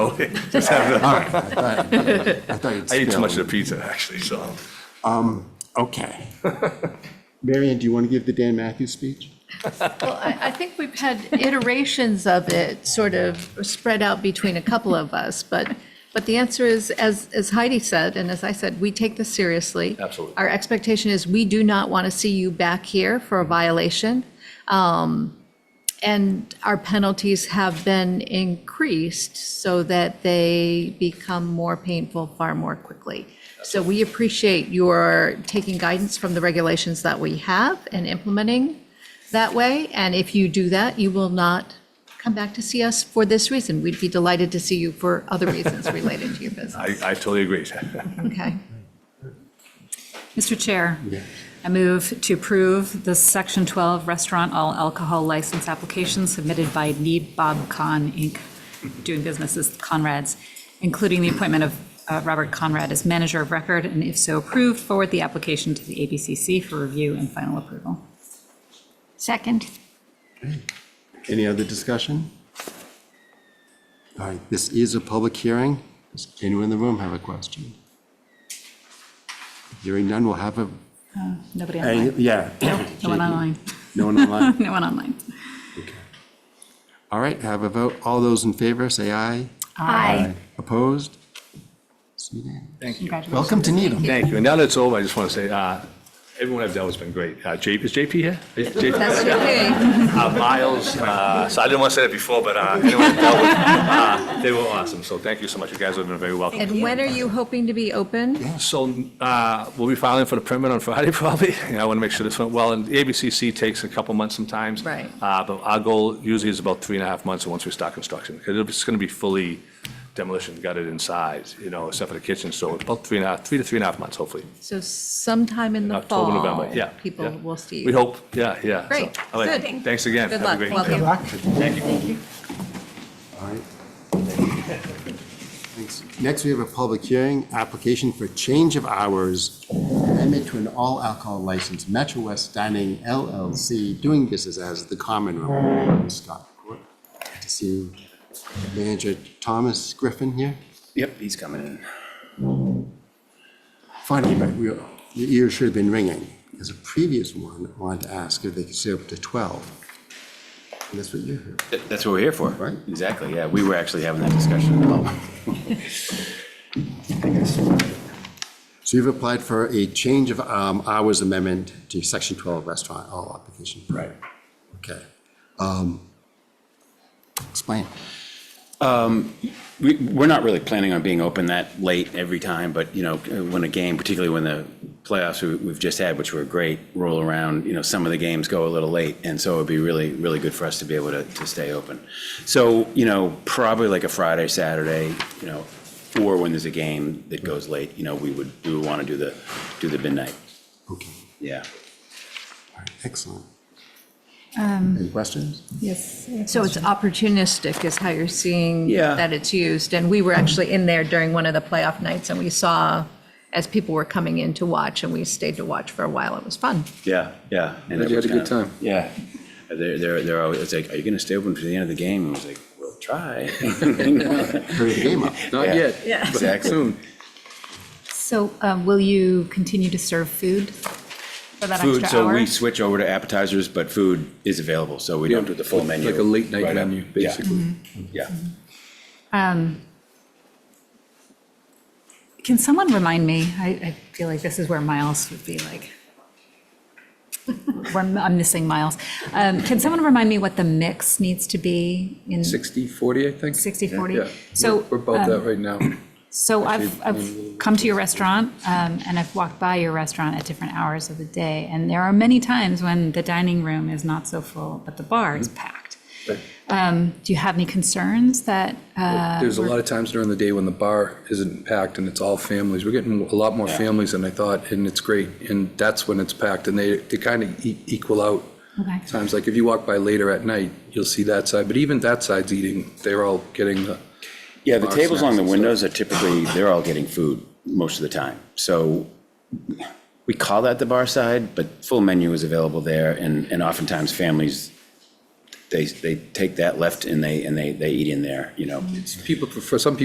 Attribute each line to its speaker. Speaker 1: Okay. Just have
Speaker 2: All
Speaker 1: a-
Speaker 2: right, I thought, I thought you'd
Speaker 1: I ate too much
Speaker 2: spilled.
Speaker 1: of the pizza, actually, so.
Speaker 2: Okay. Marion, do you want to give the Dan Matthews speech?
Speaker 3: Well, I, I think we've had iterations of it sort of spread out between a couple of us, but, but the answer is, as, as Heidi said, and as I said, we take this seriously.
Speaker 1: Absolutely.
Speaker 3: Our expectation is we do not want to see you back here for a violation. And our penalties have been increased so that they become more painful far more quickly. So we appreciate your taking guidance from the regulations that we have and implementing that way. And if you do that, you will not come back to see us for this reason. We'd be delighted to see you for other reasons related to your business.
Speaker 1: I, I totally agree.
Speaker 3: Okay.
Speaker 4: Mr. Chair, I move to approve the Section 12 Restaurant All Alcohol License Application submitted by Need Bob Khan, Inc., doing business as Conrad's, including the appointment of uh, Robert Conrad as manager of record, and if so approved, forward the application to the ABCC for review and final approval.
Speaker 5: Second.
Speaker 2: Any other discussion? All right, this is a public hearing. Does anyone in the room have a question? Hearing none, we'll have a,
Speaker 4: Nobody
Speaker 2: a-
Speaker 4: online?
Speaker 2: yeah.
Speaker 4: No one online?
Speaker 2: No one online?
Speaker 4: No one online?
Speaker 2: All right, have a vote. All those in favor, say aye.
Speaker 5: Aye.
Speaker 2: Opposed? It's unanimous.
Speaker 4: Congratulations.
Speaker 2: Welcome to Needham.
Speaker 1: Thank you. And now that it's over, I just want to say, uh, everyone I've dealt with has been great. Uh, J, is JP here? Is JP?
Speaker 3: That's okay.
Speaker 1: Uh, Miles, uh, so I didn't want to say that before, but, uh, anyone I've dealt with, uh, they were awesome. So thank you so much. You guys have been very welcome.
Speaker 3: And when are you hoping to be open?
Speaker 1: So uh, we'll be filing for the permit on Friday, probably. And I want to make sure this went well. And the ABCC takes a couple months sometimes.
Speaker 3: Right.
Speaker 1: Uh, But our goal usually is about three and a half months once we start construction. Because it's going to be fully demolition gutted inside, you know, except for the kitchen. So about three and a half, three to three and a half months, hopefully.
Speaker 3: So sometime in the fall.
Speaker 1: October, November, yeah.
Speaker 3: People
Speaker 1: yeah.
Speaker 3: will see you.
Speaker 1: We hope, yeah, yeah. So,
Speaker 3: Great,
Speaker 1: all right.
Speaker 3: good.
Speaker 1: Thanks again.
Speaker 3: Good
Speaker 1: Have a
Speaker 3: luck.
Speaker 1: great
Speaker 3: Welcome.
Speaker 1: day.
Speaker 2: All right. Thanks. Next, we have a public hearing, application for change of hours, amendment to an all alcohol license, Metro West Dining LLC, doing business as the Common Room. Scott, Court. Good to see you. Manager Thomas Griffin here.
Speaker 6: Yep, he's coming in.
Speaker 2: Finally, but we- your ears should have been ringing. There's a previous one, I wanted to ask if they could stay up to 12. And that's what you heard.
Speaker 6: Th- That's what we're here for.
Speaker 2: Right.
Speaker 6: Exactly, yeah, we were actually having that discussion. about-
Speaker 2: So you've applied for a change of um, hours amendment to section 12 restaurant, all application. Right. Okay. Um, Explain.
Speaker 6: We, we're not really planning on being open that late every time, but, you know, when a game, particularly when the playoffs we- we've just had, which were great, roll around, you know, some of the games go a little late, and so it'd be really, really good for us to be able to, to stay open. So, you know, probably like a Friday, Saturday, you know, or when there's a game that goes late, you know, we would, we would want to do the, do the midnight,
Speaker 2: Okay.
Speaker 6: yeah.
Speaker 2: All right. Excellent. Any questions?
Speaker 4: Yes.
Speaker 3: So it's opportunistic is how you're seeing
Speaker 6: Yeah.
Speaker 3: that it's used. And we were actually in there during one of the playoff nights and we saw as people were coming in to watch and we stayed to watch for a while. It was fun.
Speaker 6: Yeah, yeah. And
Speaker 7: Glad
Speaker 6: it
Speaker 7: you
Speaker 6: was
Speaker 7: had a good
Speaker 6: kind of-
Speaker 7: time.
Speaker 6: Yeah. Uh, They're, they're, they're always, it's like, are you gonna stay open to the end of the game? And I was like, we'll try.
Speaker 2: Hurry the game up.
Speaker 7: Not
Speaker 6: Yeah.
Speaker 7: yet.
Speaker 6: Yeah.
Speaker 7: but
Speaker 6: Exactly.
Speaker 7: Soon.
Speaker 4: So um, will you continue to serve food for that extra hour?
Speaker 6: Food, so we switch over to appetizers, but food is available, so we don't do the full
Speaker 7: Like-
Speaker 6: menu.
Speaker 7: Like a late night
Speaker 6: right up.
Speaker 7: menu,
Speaker 6: Yeah,
Speaker 7: basically.
Speaker 6: Yeah.
Speaker 4: Can someone remind me? I, I feel like this is where Miles would be like. where I'm I'm missing Miles. Um, can someone remind me what the mix needs to be in
Speaker 7: 60, 40, I think.
Speaker 4: 60, 40?
Speaker 7: Yeah.
Speaker 4: So, um,
Speaker 7: We're about that right now.
Speaker 4: So I've, I've come to your restaurant um, and I've walked by your restaurant at different hours of the day. And there are many times when the dining room is not so full, but the bar
Speaker 7: Mm-hmm.
Speaker 4: is packed. Um, do you have any concerns that, uh,
Speaker 7: There's a lot of times during the day when the bar isn't packed and it's all families. We're getting a lot more families than I thought, and it's great. And that's when it's packed, and they, they kind of equal out.
Speaker 4: Okay.
Speaker 7: Times, like if you walk by later at night, you'll see that side, but even that side's eating, they're all getting the.
Speaker 6: Yeah, the
Speaker 7: Bar
Speaker 6: tables
Speaker 7: snacks
Speaker 6: along the
Speaker 7: and stuff.
Speaker 6: windows are typically, they're all getting food most of the time. So we call that the bar side, but full menu is available there, and, and oftentimes families they, they take that left and they, and they, they eat in there, you know? Mm-hmm.
Speaker 7: People prefer, some people